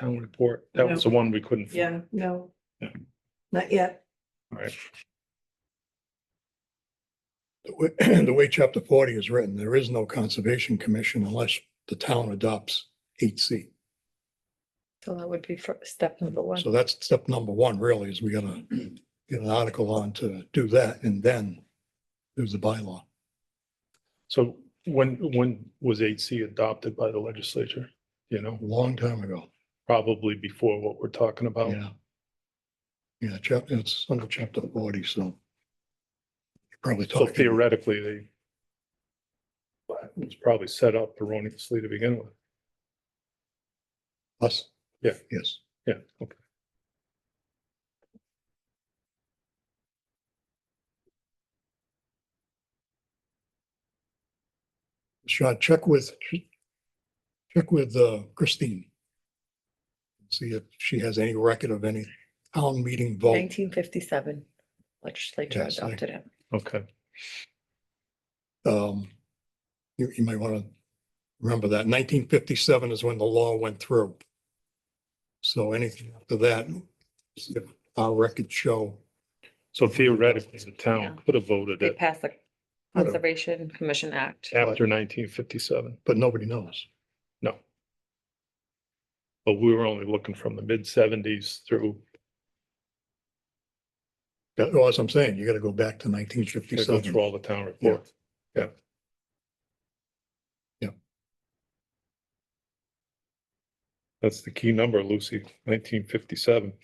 town report. That was the one we couldn't. find. Yeah, no. Yeah. Not yet. The way- the way chapter forty is written, there is no conservation commission unless the town adopts eight C. So that would be fir- step number one. So that's step number one really is we gotta get an article on to do that and then there's the bylaw. So when, when was eight C adopted by the legislature? You know, A long time ago. probably before what we're talking about. Yeah. Yeah, chapter, it's under chapter forty, so. you're Probably So talking. theoretically, they it was probably set up erroneously to begin with. Us? Yeah. Yes. Yeah, okay. Shot, check with, check with uh, Christine. See if she has any record of any town meeting vote. Nineteen fifty-seven legislature Yes, I- adopted it. Okay. Um, You, you might want to remember that nineteen fifty-seven is when the law went through. So anything after that, see if our records show So theoretically, the town Yeah. could have voted They it passed the Would've. Conservation Commission Act. after nineteen fifty-seven. but nobody knows. No. But we were only looking from the mid seventies through, That, well, as I'm saying, you gotta go back to nineteen gotta go through fifty-seven. all the town reports. Yeah. That's the key number, Lucy, nineteen fifty-seven.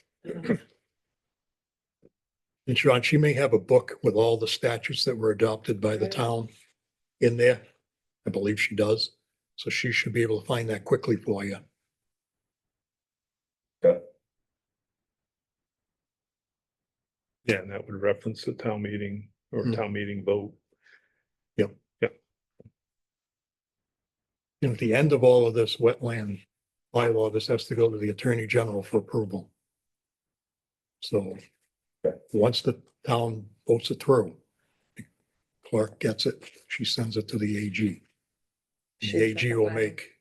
And Sean, she may have a book with all the statutes that were adopted by the Right. town in there. I believe she does. So she should be able to find that quickly for you. Yeah, and that would reference the town meeting or Hmm. town meeting vote. And at the end of all of this wetland bylaw, this has to go to the Attorney General for approval. So once the town votes it through, the clerk gets it, she sends it to the AG. She's The got AG the will file. make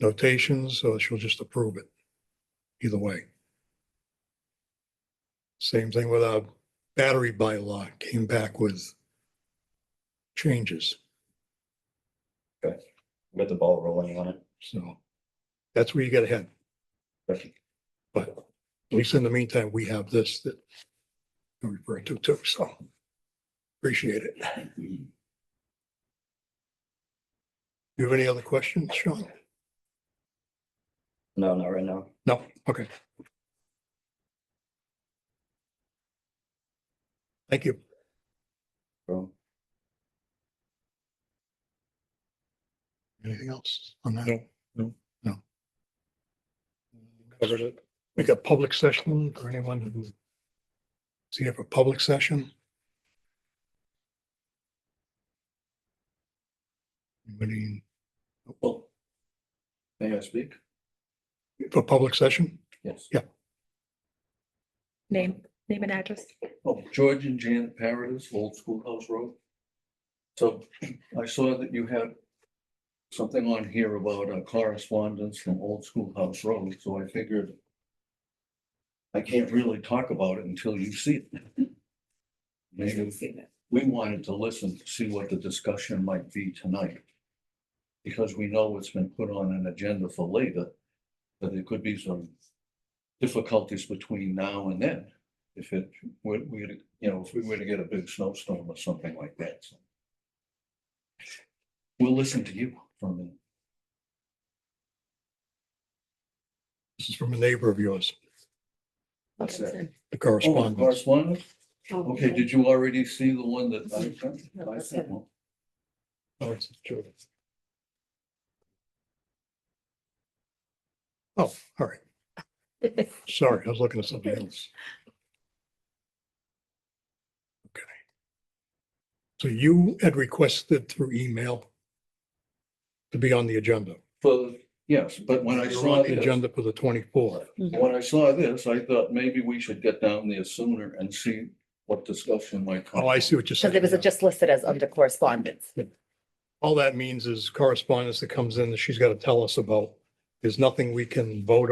notations, or she'll just approve it. Either way. Same thing with our battery bylaw, came back with changes. get the ball rolling on it. So that's where you get ahead. Right. But at least in the meantime, we have this that we refer to too, so appreciate it. You have any other questions, Sean? No, not right now. No, okay. Thank you. Well, Anything else on that? No, no. No. Covered it. We got public session for anyone who see if a public session. Anybody May I speak? for public session? Yes. Name, name and address. Oh, George and Janet Paradis, Old Schoolhouse Road. So I saw that you had something on here about uh, correspondence from Old Schoolhouse Road, so I figured I can't really talk about it until you see it. Maybe we wanted to listen to see what the discussion might be tonight. Because we know it's been put on an agenda for later, but there could be some difficulties between now and then. If it were, we, to- you know, if we were to get a big snowstorm or something like that. so. We'll listen to you for a minute. This is from a neighbor of yours, What's that? the Oh, the correspondence. Correspondence? Okay, did you already see the one that I sent? I sent one. Oh, it's Jordan. Oh, all right. Sorry, I was looking at something else. Okay. So you had requested through email to be on the agenda. For, yes, but when I You're saw on the this, Agenda for the twenty-fourth. when I saw this, I thought maybe we should get down there sooner and see what discussion might come. Oh, I see what you're So saying. there was now. just listed as under correspondence. All that means is correspondence that comes in that she's got to tell us about there's nothing we can vote